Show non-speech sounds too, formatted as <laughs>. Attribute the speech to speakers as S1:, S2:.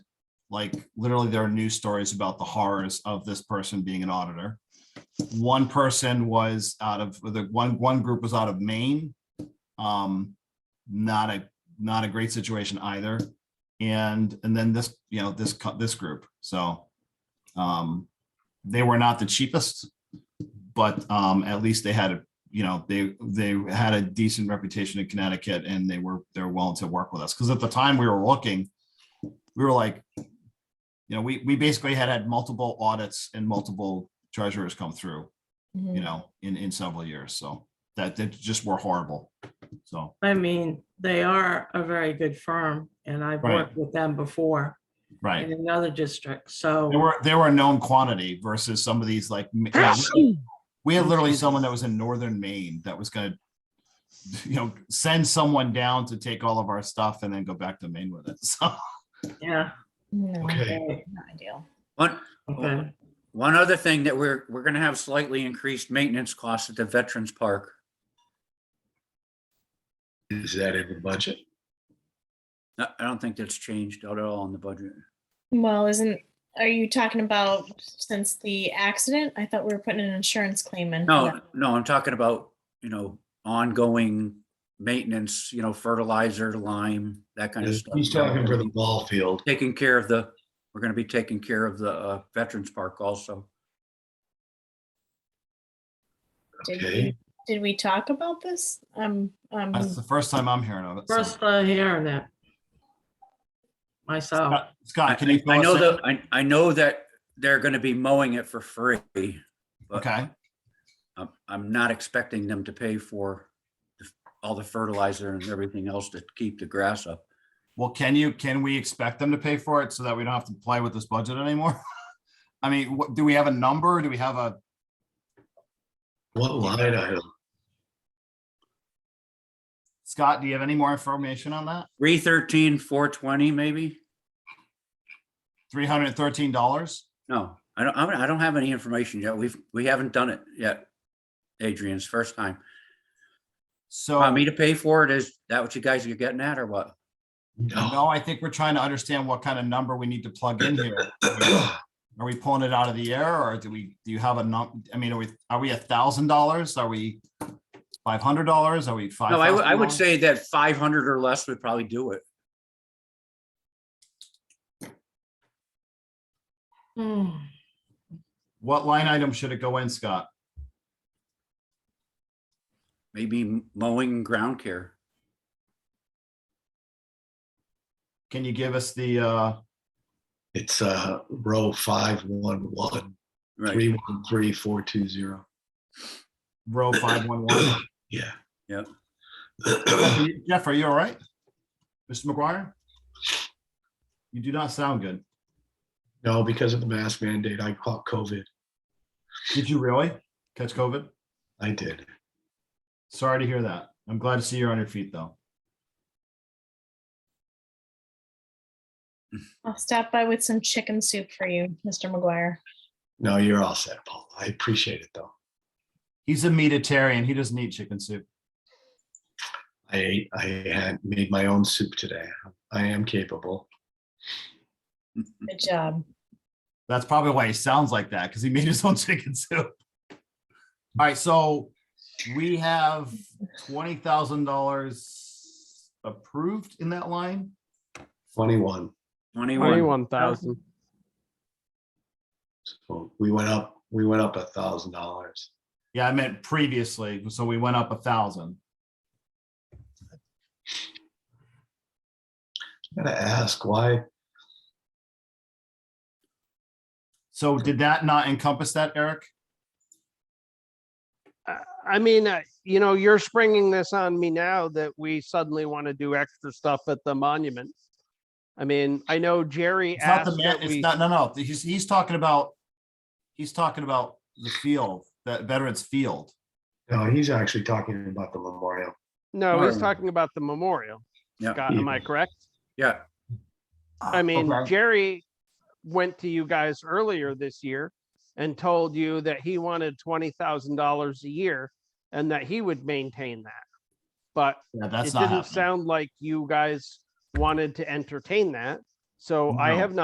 S1: like literally there are news stories about the horrors of this person being an auditor. One person was out of the one, one group was out of Maine. Um, not a, not a great situation either. And, and then this, you know, this, co- this group, so. Um, they were not the cheapest, but um, at least they had, a you know, they, they had a decent reputation in Connecticut and they were, they're willing to work with us. Cause at the time we were looking, we were like, you know, we, we basically had had multiple audits and multiple treasurers come through,
S2: Mm-hmm.
S1: you know, in, in several years. So that, that just were horrible. So,
S3: I mean, they are a very good firm and I've
S1: Right.
S3: worked with them before
S1: right.
S3: in another district,
S1: They
S3: so.
S1: were, they were a known quantity versus some of these like, yeah, we had literally someone that was in northern Maine that was gonna, you know, send someone down to take all of our stuff and then go back to Maine with it. <laughs> So,
S3: Yeah.
S2: No,
S1: okay,
S2: not ideal.
S4: One,
S3: okay.
S4: one other thing that we're, we're gonna have slightly increased maintenance costs at the Veterans Park.
S5: Is that in the budget?
S4: I, I don't think that's changed at all in the budget.
S2: Well, isn't, are you talking about since the accident? I thought we were putting an insurance claim in. for
S4: No,
S2: that.
S4: no, I'm talking about, you know, ongoing maintenance, you know, fertilizer, lime, that kind of stuff.
S5: He's talking for the ball field.
S4: Taking care of the, we're gonna be taking care of the uh, Veterans Park also.
S2: Did
S5: Okay.
S2: we- Did we talk about this? Um, um,
S1: that's the first time I'm hearing of it. so.
S3: First uh, hearing that. Myself,
S1: Scott- Scott, can you?
S4: I
S1: fill us
S4: know
S1: in?
S4: that, I, I know that they're gonna be mowing it for free. but
S1: Okay,
S4: I'm, I'm not expecting them to pay for the- all the fertilizer and everything else to keep the grass up.
S1: well, can you, can we expect them to pay for it so that we don't have to play with this budget anymore? <laughs> I mean, what, do we have a number? Do we have a,
S5: What line item?
S1: Scott, do you have any more information on that?
S4: Three thirteen, four twenty, maybe?
S1: Three hundred and thirteen dollars?
S4: No, I don't, I don't- I don't have any information yet. We've, we haven't done it yet. Adrian's first time. Want
S1: So,
S4: me to pay for it? Is that what you guys are getting at or what?
S1: no, I think we're trying to understand what kind of number we need to plug in here.
S5: Oh,
S1: Are we pulling it out of the air or do we, do you have a num, I mean, are we, are we a thousand dollars? Are we five hundred dollars? Are we five?
S4: No, I, would- I would say that five hundred or less would probably do it.
S3: Hmm,
S1: What line item should it go in, Scott?
S4: Maybe mowing and ground care.
S1: Can you give us the, uh,
S5: <clears throat> It's uh row five one one,
S4: Right,
S5: three one three, four two zero.
S1: row five one one?
S5: Yeah.
S4: Yep.
S1: Jeff, are you- Jeff, are you all right? Mr. McGuire? You do not sound good.
S5: <clears throat> No, because of the mask mandate, I caught COVID.
S1: Did you really catch COVID?
S5: I did.
S1: Sorry to hear that. I'm glad to see you're on your feet, though.
S2: I'll stop by with some chicken soup for you, Mr. McGuire.
S5: No, you're all set, Paul. I appreciate it though.
S1: He's a meatitarian. He doesn't eat chicken soup.
S5: I ate, I had made my own soup today. I am capable.
S2: Good job.
S1: That's probably why he sounds like that, because he made his own <laughs> chicken soup. All right, so we have twenty thousand dollars approved in that line.
S5: Twenty-one.
S4: twenty-one.
S6: Twenty-one thousand.
S5: So we went up, we went up a thousand dollars.
S1: Yeah, I meant previously, so we went up a thousand.
S5: I Gotta ask why,
S1: So did that not encompass that, Eric?
S6: I- I mean, I- you know, you're springing this on me now that we suddenly want to do extra stuff at the monument. I mean, I know Jerry
S1: It's not the
S6: asked
S1: man,
S6: that
S1: it's
S6: we,
S1: not, no, no, he's, he's talking about, he's talking about the field, that veterans field.
S5: no, he's actually talking about the memorial.
S6: no, he's
S4: Right.
S6: talking about the memorial.
S4: Yeah.
S6: Scott, am I correct?
S4: Yeah,
S1: Oh,
S6: I mean,
S1: Okay.
S6: Jerry went to you guys earlier this year and told you that he wanted twenty thousand dollars a year and that he would maintain that. But
S1: Yeah,
S6: it
S1: that's not
S6: didn't
S1: happening.
S6: sound like you guys wanted to entertain that. So I
S1: No.
S6: have not.